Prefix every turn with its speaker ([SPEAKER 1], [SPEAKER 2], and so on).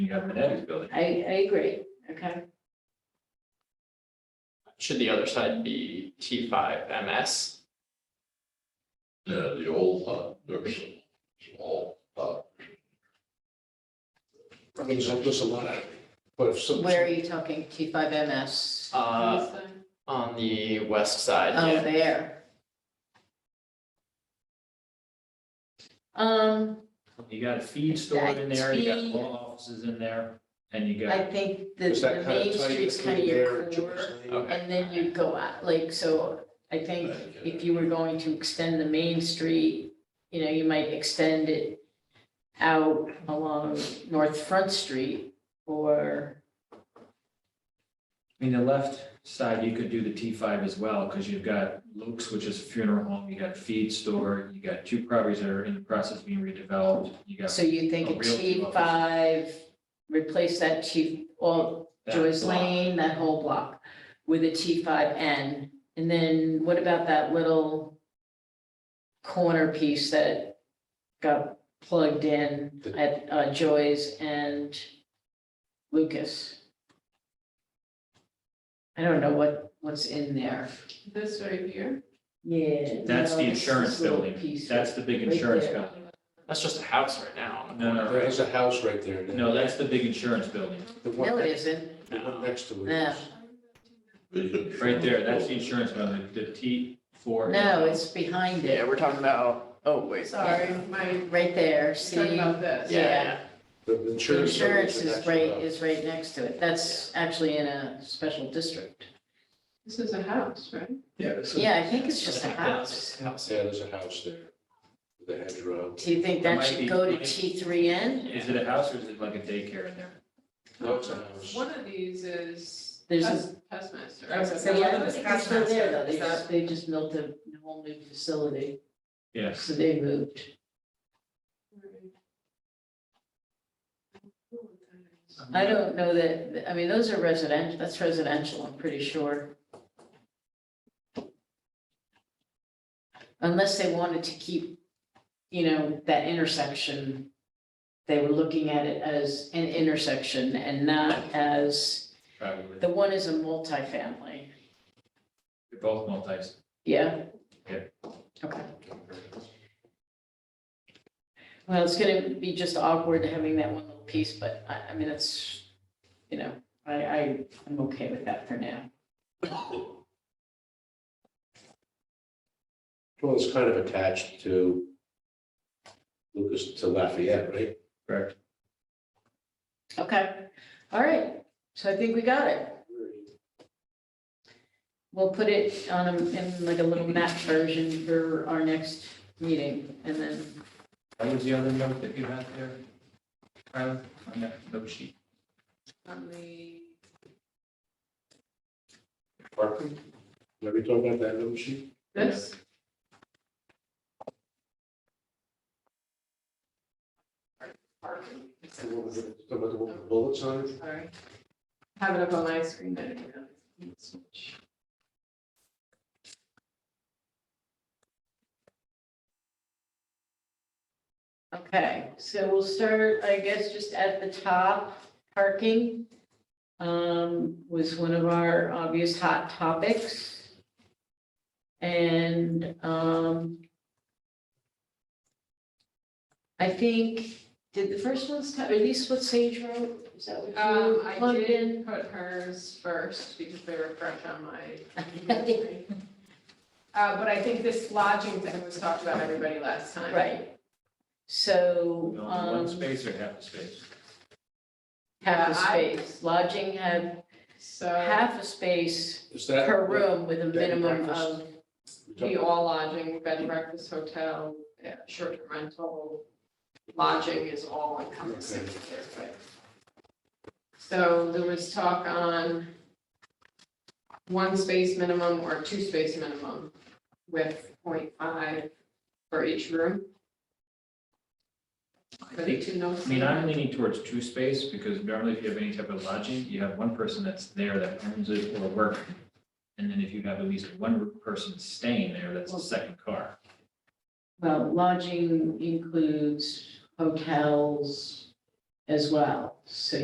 [SPEAKER 1] got Minetti's building.
[SPEAKER 2] I, I agree, okay,
[SPEAKER 3] Should the other side be T five MS?
[SPEAKER 4] Yeah, the old uh, nursing, small, uh. I mean, there's a- there's a lot of, but if some.
[SPEAKER 2] where are you talking, T five MS?
[SPEAKER 3] Uh, on the west side,
[SPEAKER 2] Oh,
[SPEAKER 3] yeah.
[SPEAKER 2] there. Um,
[SPEAKER 1] You got a feed store in there, you got
[SPEAKER 2] Feed.
[SPEAKER 1] law offices in there, and you
[SPEAKER 2] I
[SPEAKER 1] got,
[SPEAKER 2] think the,
[SPEAKER 4] Is
[SPEAKER 2] the
[SPEAKER 4] that kind
[SPEAKER 2] main
[SPEAKER 4] of tight
[SPEAKER 2] street's kind of
[SPEAKER 4] between there
[SPEAKER 2] your
[SPEAKER 4] and
[SPEAKER 2] core,
[SPEAKER 4] George's Lane?
[SPEAKER 3] Okay.
[SPEAKER 2] and then you go out, like, so I think if you were going to extend the main street, you know, you might extend it out along North Front Street or,
[SPEAKER 1] I mean, the left side, you could do the T five as well, because you've got Luke's, which is a funeral home, you got a feed store, you got two properties that are in the process of being redeveled, you got.
[SPEAKER 2] so you think
[SPEAKER 1] A
[SPEAKER 2] a
[SPEAKER 1] real
[SPEAKER 2] T five, replace that T, all
[SPEAKER 1] that
[SPEAKER 2] Joyce
[SPEAKER 1] block.
[SPEAKER 2] Lane, that whole block with a T five N. And then what about that little corner piece that got plugged in at uh, Joy's and Lucas? I don't know what, what's in there.
[SPEAKER 5] This right here,
[SPEAKER 2] Yeah.
[SPEAKER 1] That's the
[SPEAKER 2] no, it's
[SPEAKER 1] insurance
[SPEAKER 2] this little
[SPEAKER 1] building,
[SPEAKER 2] piece.
[SPEAKER 1] that's the big
[SPEAKER 2] right
[SPEAKER 1] insurance
[SPEAKER 2] there.
[SPEAKER 1] company.
[SPEAKER 3] That's just a house right now on the
[SPEAKER 1] No, no,
[SPEAKER 3] corner.
[SPEAKER 4] There's Uh, a house right there. and
[SPEAKER 1] No, that's the big insurance building,
[SPEAKER 4] The one,
[SPEAKER 2] No, it
[SPEAKER 4] the
[SPEAKER 2] isn't.
[SPEAKER 4] one next to it.
[SPEAKER 2] No.
[SPEAKER 4] is-
[SPEAKER 1] right there, that's the insurance company, the T four.
[SPEAKER 2] No, it's behind
[SPEAKER 3] Yeah,
[SPEAKER 2] it.
[SPEAKER 3] we're talking about, oh, wait.
[SPEAKER 5] sorry, my,
[SPEAKER 2] Right there,
[SPEAKER 5] talking
[SPEAKER 2] see?
[SPEAKER 5] about this.
[SPEAKER 2] yeah.
[SPEAKER 3] Yeah,
[SPEAKER 4] The
[SPEAKER 2] The
[SPEAKER 4] insurance.
[SPEAKER 2] insurance
[SPEAKER 4] company's
[SPEAKER 2] is
[SPEAKER 4] next to
[SPEAKER 2] right,
[SPEAKER 4] it.
[SPEAKER 2] is right next to it. That's actually in a special district.
[SPEAKER 5] This is a house, right?
[SPEAKER 4] Yeah. it's a-
[SPEAKER 2] Yeah, I think it's
[SPEAKER 3] yeah.
[SPEAKER 2] just a
[SPEAKER 3] Yeah,
[SPEAKER 2] house.
[SPEAKER 3] house.
[SPEAKER 4] Yeah, there's a house there. The hedgerow.
[SPEAKER 2] Do you think that should go to T3N?
[SPEAKER 1] Is it a house or is it like a daycare in there?
[SPEAKER 4] No, it's a house.
[SPEAKER 5] One of these is
[SPEAKER 2] There's a-
[SPEAKER 5] pest, pestmaster.
[SPEAKER 6] I was gonna
[SPEAKER 2] So
[SPEAKER 6] say,
[SPEAKER 2] yeah,
[SPEAKER 6] one
[SPEAKER 2] I
[SPEAKER 6] of
[SPEAKER 2] don't
[SPEAKER 6] them's
[SPEAKER 2] think it's still there though. They
[SPEAKER 6] Is that-
[SPEAKER 2] just, they just built a whole new facility,
[SPEAKER 1] Yes,
[SPEAKER 2] so they moved. I don't know that, I mean, those are residential, that's residential, I'm pretty sure. Unless they wanted to keep, you know, that intersection, they were looking at it as an intersection and not as,
[SPEAKER 1] probably,
[SPEAKER 2] the one is a multifamily,
[SPEAKER 1] They're both multis.
[SPEAKER 2] yeah?
[SPEAKER 1] Yeah.
[SPEAKER 2] Okay. Well, it's gonna be just awkward having that one little piece, but I, I mean, it's, you know, I, I, I'm okay with that for now.
[SPEAKER 4] Well, it's kind of attached to Lucas to Lafayette, right?
[SPEAKER 1] correct?
[SPEAKER 2] Okay, all right, so I think we got it. We'll put it on, a- in like a little map version for our next meeting, and then,
[SPEAKER 1] What was the other note that you had there? Tyler, on that note sheet?
[SPEAKER 5] On the,
[SPEAKER 4] Parking. Are we talking about that little sheet?
[SPEAKER 5] this,
[SPEAKER 4] The one with the- the one with the bullets on it?
[SPEAKER 5] sorry. Have it up on my screen, I didn't realize.
[SPEAKER 2] okay, so we'll start, I guess, just at the top, parking um, was one of our obvious hot topics. And, um, I think, did the first one's, or at least what Sage wrote, is that what you
[SPEAKER 5] Um, I
[SPEAKER 2] plugged in?
[SPEAKER 5] did put hers first because they were fresh on my. Uh, but I think this lodging thing was talked about everybody last time.
[SPEAKER 2] Right. So,
[SPEAKER 1] No, One
[SPEAKER 2] um,
[SPEAKER 1] space or half a space?
[SPEAKER 2] half a
[SPEAKER 5] Yeah, I- Uh,
[SPEAKER 2] space, lodging have
[SPEAKER 5] So
[SPEAKER 2] half a space
[SPEAKER 4] Is that?
[SPEAKER 2] per room with a
[SPEAKER 4] Bed and
[SPEAKER 2] minimum of,
[SPEAKER 4] breakfast? We talked
[SPEAKER 5] the all lodging, bed and breakfast, hotel, yeah, short-term rental, lodging is all encompassing. here, but- So there was talk on one space minimum or two space minimum with 0.5 for each room.
[SPEAKER 1] I
[SPEAKER 5] For the
[SPEAKER 1] think,
[SPEAKER 5] two no
[SPEAKER 1] I mean, I'm
[SPEAKER 5] seater.
[SPEAKER 1] leaning towards two space because normally if you have any type of lodging, you have one person that's there that owns it or work. And then if you have at least one person staying there, that's a second car.
[SPEAKER 2] well, lodging includes hotels as well. So